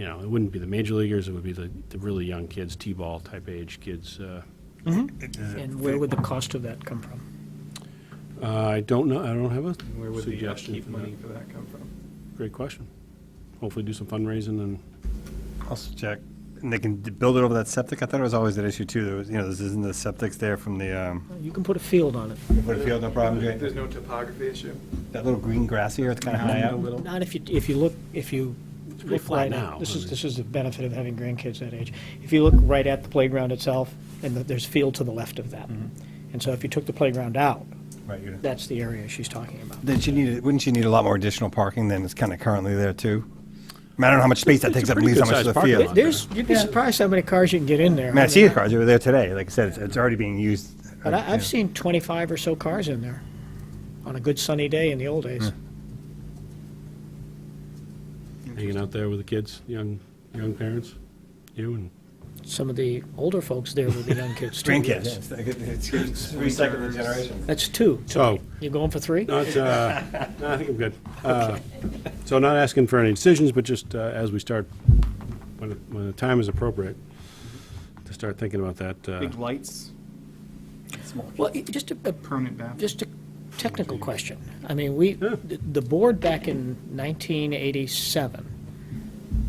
you know, it wouldn't be the major leaguers, it would be the, the really young kids, T-ball type age kids. uh, And where would the cost of that come from? uh, I don't know, I don't have Where a would the suggestion upkeep for that. money for that come from? Great question. Hopefully do some fundraising and, Also check, and they can d- build it over that septic. I thought it was always that issue too. There was, you know, this isn't the septic's there from the, um, You can put a field on it, put a field, no problem. great. There's no topography issue? That little green grass here, it's kind of high up. not if you, if you look, if you pretty look flat right now, now. This I is, mean. this is the benefit of having grandkids that age. If you look right at the playground itself, and the- there's field to the left of that. Mm-hmm. And so if you took the playground out, Right, you're- that's the area she's talking about. Then she needed, wouldn't she need a lot more additional parking than is kind of currently there too? I mean, I don't know how much space that It's a takes up and pretty leaves how much good-sized to the parking field. lot. I There's, you'd be surprised how many cars you can get in there. mean, I see the cars over there today. Like I said, it's, it's already being used. uh, But I, Yeah. I've seen 25 or so cars in there on a good sunny day in the old days. Hmm. hanging out there with the kids, young, young parents, you and Some of the older folks there will be young kids too. Grandkids. yes. It's- it's Recycling the generation. That's two. so. You going for three? Not, uh, no, I think I'm good. Uh, So not asking for any decisions, but just uh, as we start, when, when the time is appropriate, to start thinking about that. uh, Big lights, Well, it- just a, a- permanent bathroom. just a technical question. I mean, we, Yeah. the the board back in 1987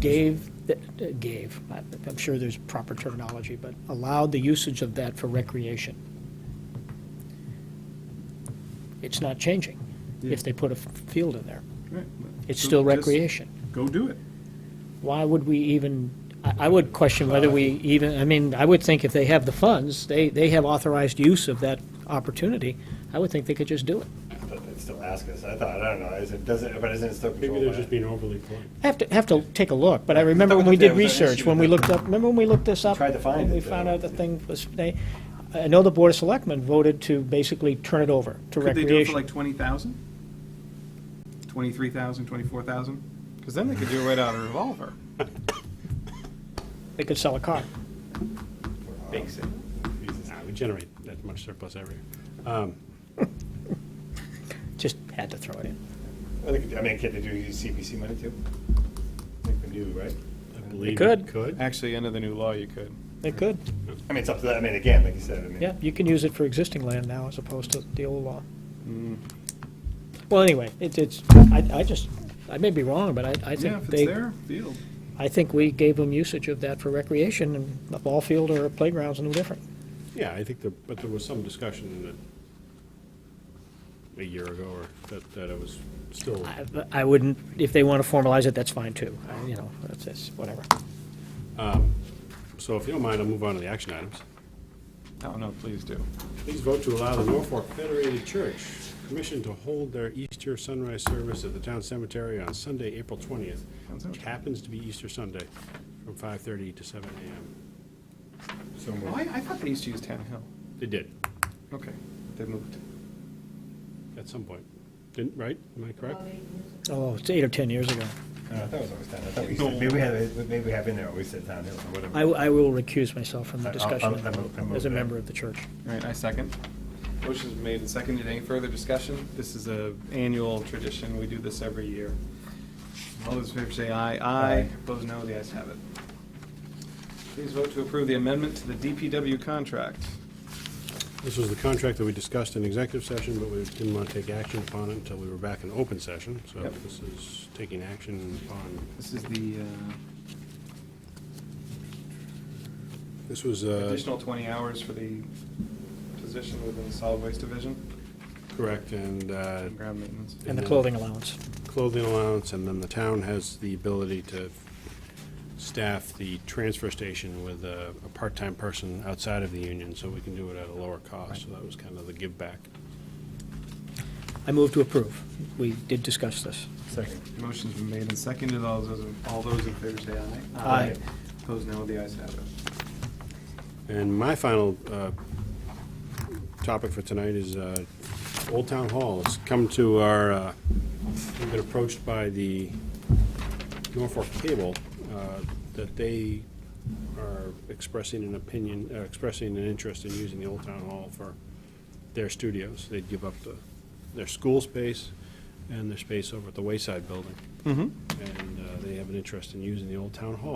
gave, the- uh, gave, I- I'm sure there's proper terminology, but allowed the usage of that for recreation. It's not changing if they put a f- field in there. Right. It's So still just recreation. Go do it. Why would we even, I I would question whether Uh. we even, I mean, I would think if they have the funds, they, they have authorized use of that opportunity, I would think they could just do it. But they'd still ask us. I thought, I don't know, is it, does it, but isn't it still Maybe controlled they're by- just being overly polite. Have to, have to take a look, but I remember thought we when we looked at did it with that research, issue when we with looked up, remember when we looked this up? Tried to find And we it, found uh, out the thing was, they, I know the Board of Selectmen voted to basically turn it over to Could they do it for recreation. like 20,000? 23,000, 24,000? Because then they could do it right out of a revolver. They could sell a car. Bake sale. Nah, We generate that much surplus every year. Just had to throw it in. I think- I mean, can they do use CPC money too? I think they do, right? I believe could. it Could. Actually, under the new law, you could. They could, I mean, it's up to that, I mean, again, like you said, I mean. yeah, you can use it for existing land now as opposed to the old law. Well, anyway, it- it's, I, I just, I may be wrong, but I, I Yeah, if think it's they, there, field. I think we gave them usage of that for recreation, and a ball field or a playground's no different. Yeah, I think, there- but there was some discussion in it a year ago, or that, that it was still, I- I wouldn't, if they want to formalize it, that's fine too, I- you know, that's, that's, whatever. so if you don't mind, I'll move on to the action items. No, Oh, no, please do. Please vote to allow the Norfolk Federated Church Commission to hold their Easter sunrise service at the town cemetery on Sunday, April 20th, which happens to be Easter Sunday, from 5:30 to 7 a.m. So moved. Oh, I, I thought they used to use Town Hill. They did, Okay, they moved. at some point. Didn't, right? Am I correct? Oh, it's eight or 10 years ago. No, I thought it was always down, I thought we used to, maybe we had, maybe we have in there, always said downhill or whatever. I, I will recuse myself from the I'll- discussion I'll- I'll- I'll move as a that. member of the church. All right, I second. Motion's made and seconded. Any further discussion? This is a annual tradition. We do this every year. All those in favor say aye. Aye. Aye. Opposed, no. The ayes have it. Please vote to approve the amendment to the DPW contract. This was the contract that we discussed in executive session, but we didn't want to take action upon it until we were back in open session. So Yep. this is taking action upon, This is the uh, this was, uh, additional 20 hours for the position within the solid waste division correct, and uh, and ground maintenance. And the Yeah. clothing allowance. clothing allowance, and then the town has the ability to staff the transfer station with a, a part-time person outside of the union, so we can do it at a lower cost. So that was kind of the give back. I move to approve. We did discuss this. Second. Motion's been made and seconded. All those, all those in favor say aye. Aye. Opposed, no. The ayes have it. And my final uh, topic for tonight is uh, Old Town Hall. It's come to our, uh, we've been approached by the Norfolk Cable uh, that they are expressing an opinion, uh, expressing an interest in using the Old Town Hall for their studios. They'd give up the, their school space and their space over at the Wayside Building. Mm-hmm. And uh, they have an interest in using the Old Town Hall